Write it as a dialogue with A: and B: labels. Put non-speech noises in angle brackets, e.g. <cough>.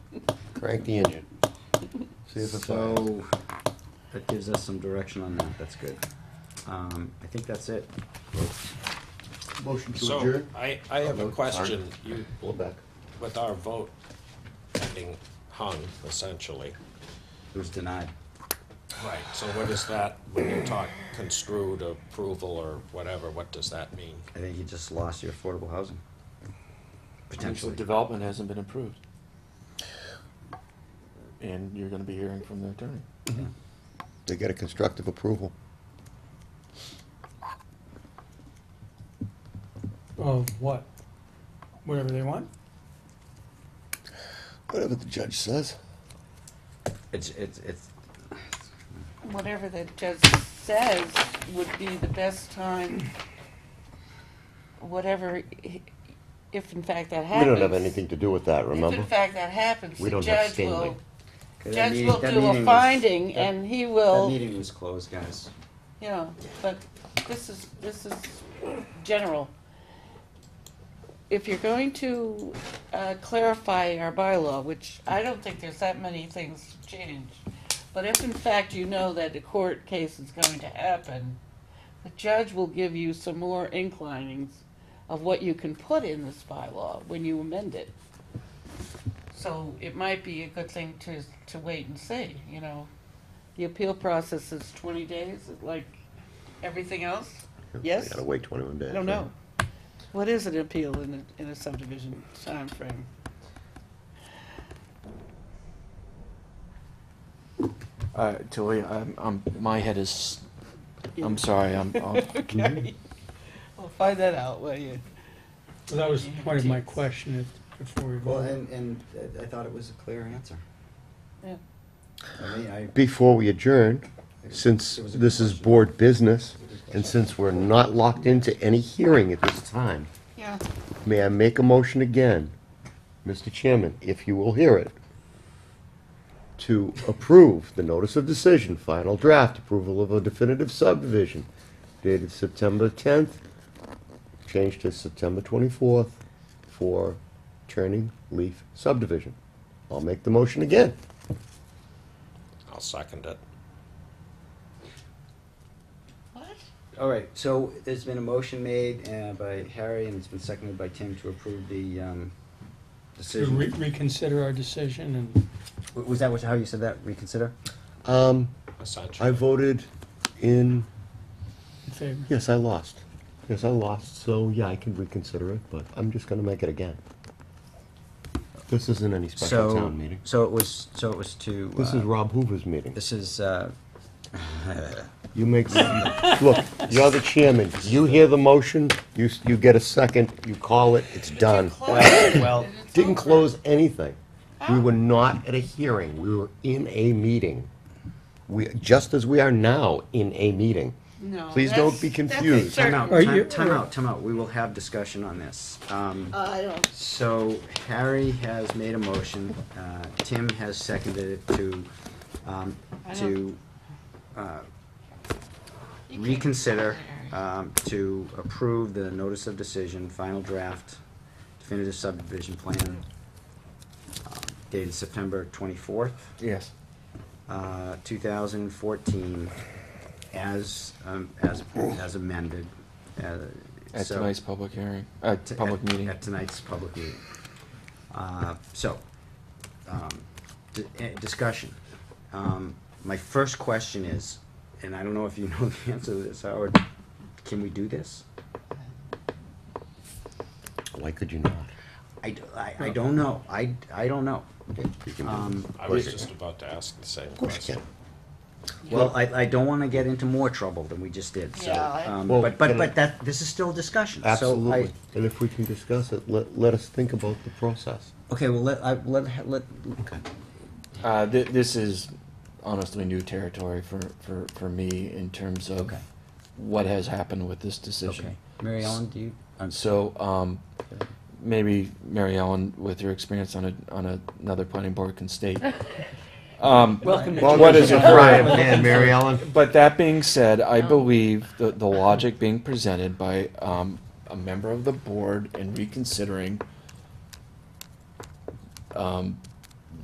A: Crank the engine. See if it's fires.
B: So, that gives us some direction on that, that's good. Um, I think that's it.
C: Motion to
D: So,
C: adjourn?
D: I, I have a
C: Vote.
D: question. You,
C: Pull it back.
D: with our vote ending hung, essentially.
B: It was denied.
D: Right. So what is that, when you talk construed approval or whatever, what does that mean?
B: I think you just lost your affordable housing.
E: Potential
B: Potentially.
E: development hasn't been approved. And you're gonna be hearing from the attorney.
A: They get a constructive approval.
F: Of what? Whatever they want?
A: Whatever the judge says.
B: It's, it's, it's,
G: Whatever the judge says would be the best time, whatever, he- if in fact that
A: We
G: happens.
A: don't have anything to do with that,
G: If
A: remember?
G: in fact that happens,
A: We
G: the
A: don't have
G: judge
A: standing.
G: will,
B: Okay, that
G: judge
B: meeting-
G: will
B: that
G: do
B: meeting
G: a
B: was-
G: finding
B: that-
G: and he
B: That
G: will,
B: meeting was closed, guys.
G: you know, but this is, this is general. If you're going to uh, clarify our bylaw, which I don't think there's that many things to change, but if in fact you know that a court case is going to happen, the judge will give you some more inclinings of what you can put in this bylaw when you amend it. So it might be a good thing to, to wait and see, you know. The appeal process is twenty days, like everything else,
A: You
G: yes?
A: gotta wait twenty-one days.
G: I don't know.
A: right?
G: What is an appeal in a, in a subdivision timeframe?
E: Uh, Tilly, I'm, I'm, my head is,
G: Yeah.
E: I'm sorry, I'm, I'm-
G: Okay. We'll find that out, will you?
F: Well, that was part of my question if- before we
B: Well, and,
F: voted.
B: and I- I thought it was a clear answer.
G: Yeah.
B: I mean, I.
A: Before we adjourn, since
B: It was a
A: this
B: good
A: is
B: question.
A: board business, and since we're not locked into any hearing at this time,
G: Yeah.
A: may I make a motion again, Mr. Chairman, if you will hear it, to approve the notice of decision, final draft approval of a definitive subdivision dated September tenth, changed to September twenty-fourth for Turning Leaf subdivision. I'll make the motion again.
D: I'll second it.
G: What?
B: All right, so there's been a motion made uh, by Harry and it's been seconded by Tim to approve the um,
F: To
B: decision.
F: re- reconsider our decision and
B: W- Was that what- how you said that, reconsider?
A: Um,
D: Essentially.
A: I voted in,
F: in favor.
A: yes, I lost. Yes, I lost, so yeah, I can reconsider it, but I'm just gonna make it again. This isn't any special
B: So,
A: town meeting.
B: so it was, so it was to.
A: This
B: uh,
A: is Rob Hoover's meeting.
B: This is, uh,
A: You make, look, you're the chairman. You hear the motion, you, s- you get a second, you call it, it's done.
B: well,
A: Didn't close anything. We were not at a hearing. We were in a meeting. We, just as we are now in a meeting.
G: No.
A: Please
G: that's-
A: don't be
G: that's a
A: confused.
B: time
G: certain-
B: out,
F: Are you-
B: time time out, time out. We will have discussion on this. Um,
G: Uh, I don't
B: So Harry has made a motion, uh, Tim has seconded it to, um,
G: I
B: to
G: don't-
B: uh, reconsider, um, to approve the notice of decision, final draft, definitive subdivision plan uh, dated September twenty-fourth,
E: <laughs> yes.
B: uh, two thousand and fourteen, as, um, as, as amended. uh,
E: At
B: so-
E: tonight's public hearing, uh,
B: to-
E: public
B: at-
E: meeting.
B: At tonight's public meeting. Uh, So, um, di- eh, discussion. Um, My first question is, and I don't know if you <laughs> know the answer to this, Howard, can we do this?
A: Why could you not?
B: I, d- I- I don't know, I, I don't know.
A: You can do
B: Um,
D: I was just about to ask the same
A: Of course you
D: question.
A: can.
B: Well, I, I don't wanna get into more trouble than we just did, so.
G: Yeah, I-
B: um,
A: Well,
B: But, but,
A: can I-
B: but that, this is still discussion, so I-
A: Absolutely. And if we can discuss it, let, let us think about the process.
B: Okay, well, let, I, let, let,
E: Uh, th- this is honestly new territory for, for, for me in terms of
B: Okay.
E: what has happened with this decision.
B: okay. Mary Ellen, do you? I'm
E: So, um, maybe Mary Ellen, with your experience on a, on a- another planning board can state. Um, what <laughs> is it,
A: Brian, man, Mary Ellen?
E: but that being said, I believe the, the logic being presented by, um, a member of the board in reconsidering um,